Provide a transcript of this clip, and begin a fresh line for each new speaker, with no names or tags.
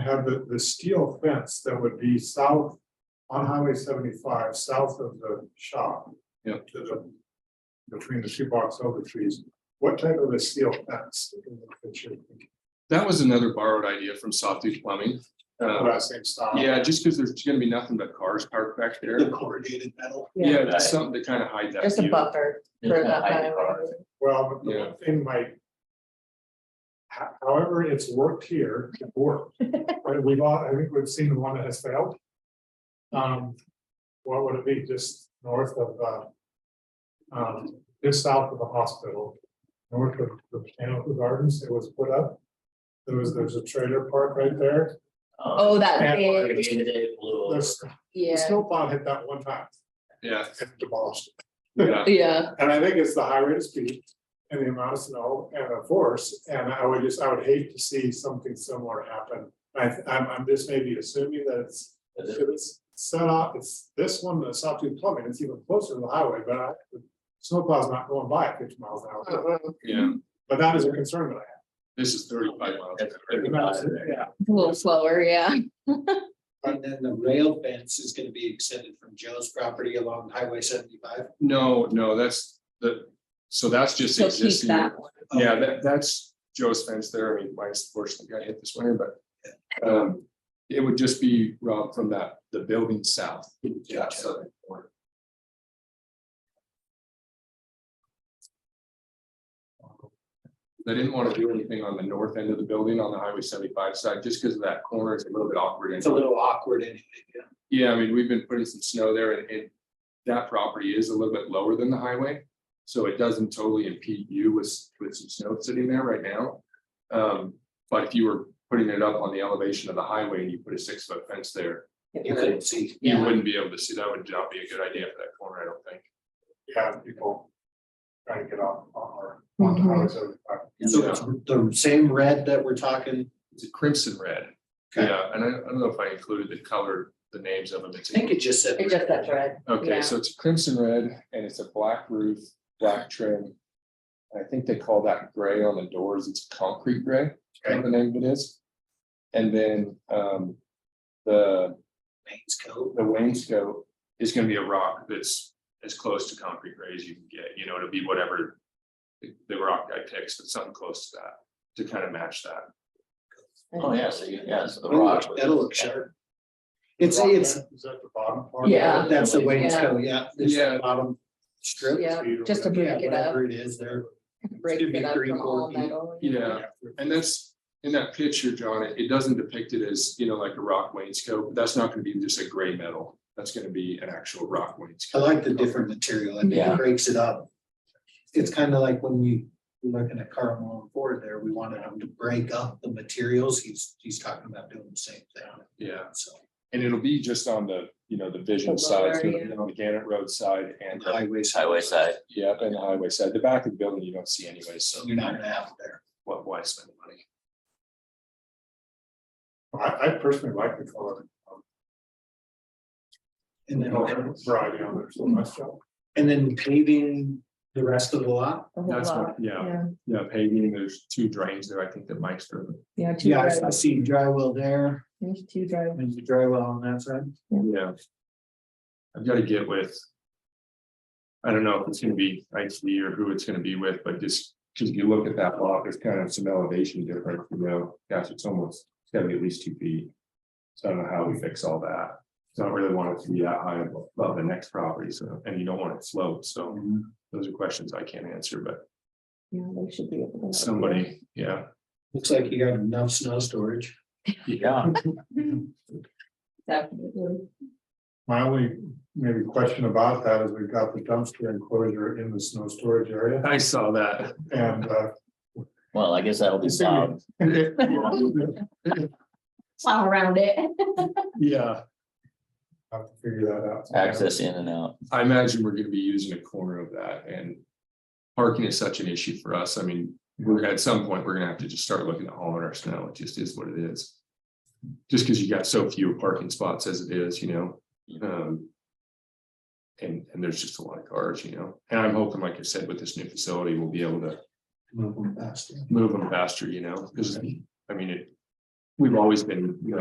have the, the steel fence that would be south on Highway seventy-five, south of the shop.
Yeah.
To the, between the two box over trees, what type of a steel fence?
Uh, That was another borrowed idea from Sawtooth Plumbing. Uh,
That same style.
yeah, just because there's gonna be nothing but cars parked back there.
corrugated metal.
Yeah, just something to kind of hide that.
Just a
view.
buffer. for that kind of-
Well, but the
Yeah.
one thing might. ho- However, it's worked here, it worked, but we've all, I think we've seen the one that has failed. Um, what would it be, just north of, uh. Um, just south of the hospital, north of the Botanical Gardens, it was put up. There was, there's a trailer park right there,
Oh, that
And-
big,
there's, the
yeah,
snowplow hit that one time,
Yeah,
and demolished.
yeah,
yeah,
And I think it's the high rate of speed and the amount of snow and the force, and I would just, I would hate to see something similar happen. I, I'm, I'm just maybe assuming that it's, if it's set up, it's this one, the Sawtooth Plumbing, it's even closer to the highway, but I. the Snowplow's not going by at fifty miles an
Uh-huh.
hour,
yeah.
but that is a concern that
This is thirty-five miles. an
I
hour.
have. Yeah.
a little slower, yeah.
And then the rail fence is gonna be extended from Joe's property along Highway seventy-five.
No, no, that's the, so that's just
So keep
existing.
that one.
Yeah, that, that's Joe's fence there. I mean, mine's fortunately got hit this winter, but. Um, it would just be Rob from that, the building south. Yeah. southern corner. They didn't want to do anything on the north end of the building on the highway seventy-five side, just because of that corner is a little bit awkward. and-
It's a little awkward anyway, yeah.
yeah, I mean, we've been putting some snow there and, and that property is a little bit lower than the highway. So it doesn't totally impede you with, with some snow sitting there right now. Um, but if you were putting it up on the elevation of the highway and you put a six foot fence there,
You couldn't see.
you
Yeah.
wouldn't be able to see, that would not be a good idea for that corner, I don't think.
Yeah, people trying to get off, on our, on
Mhm.
highway uh, seventy-five.
So it's the same red that we're talking,
It's a crimson red.
Okay.
Yeah, and I, I don't know if I included the color, the names of them. It's-
I think it just said.
It just that red. Yeah.
Okay, so it's crimson red and it's a black roof, black trim. I think they call that gray on the doors. It's concrete gray, I think the name of it is. And then um the
Mains Cove.
the wainscot is gonna be a rock that's as close to concrete gray as you can get, you know, it'll be whatever the- the rock guy picks, but something close to that, to kind of match that.
Oh, yeah, so you, yeah, so the
That'll
rock.
look-
was-
That'll look sharp. It's, it's,
Is that the bottom part?
Yeah.
that's the Wayne's Cove, yeah. It's the
Yeah.
Bottom strip.
Yeah, just to
Yeah,
break it up,
whatever it is there.
break
Give me
it up
three,
from
four
all
feet.
metal.
Yeah, and that's, in that picture, John, it, it doesn't depict it as, you know, like a rock wainscot, that's not gonna be just a gray metal. That's gonna be an actual rock wainscot.
I like the different material. I mean,
Yeah.
it breaks it up. It's kind of like when we, we're looking at Carl Malone Ford there, we wanted him to break up the materials. He's, he's talking about doing the same thing.
Yeah,
So
and it'll be just on the, you know, the vision
The
side,
lower,
so
yeah.
you know, the Gannett Road side and,
and the highways.
Highway side.
yeah, and the highway side, the back of the building you don't see anyway, so
So you're not gonna have it there.
what, why spend the money?
I, I personally like the color.
And then,
Variety on there, so much.
and then paving the rest of the lot.
The whole
That's
lot.
what, yeah,
Yeah,
yeah, paving, there's two drains there, I think that Mike's driven.
yeah, two
Yeah, I- I
driveways,
see drywall there.
there's two driveways.
There's a drywall on that side.
Yeah. I've got to get with. I don't know if it's gonna be IC or who it's gonna be with, but just, because if you look at that lot, there's kind of some elevation difference, you know, gosh, it's almost, it's gotta be at least two feet. So I don't know how we fix all that. So I don't really want it to be that high above the next property, so, and you don't want it sloped, so those are questions I can't answer, but
Yeah, they should be able to.
somebody, yeah.
Looks like you got enough snow storage.
Yeah,
Definitely.
My only maybe question about that is we've got the dumpster enclosure in the snow storage area
I saw that.
and uh.
well, I guess that'll be
It's gonna
plowed.
Plow around it.
Yeah,
Have to figure that out.
access in and out.
I imagine we're gonna be using a corner of that and. Parking is such an issue for us. I mean, we're at some point, we're gonna have to just start looking at hauling our snow. It just is what it is. Just because you got so few parking spots as it is, you know, um. And, and there's just a lot of cars, you know, and I'm hoping, like I said, with this new facility, we'll be able to
Mm-hmm.
Move them faster.
move them faster, you know, because I mean, it. We've always been, you know,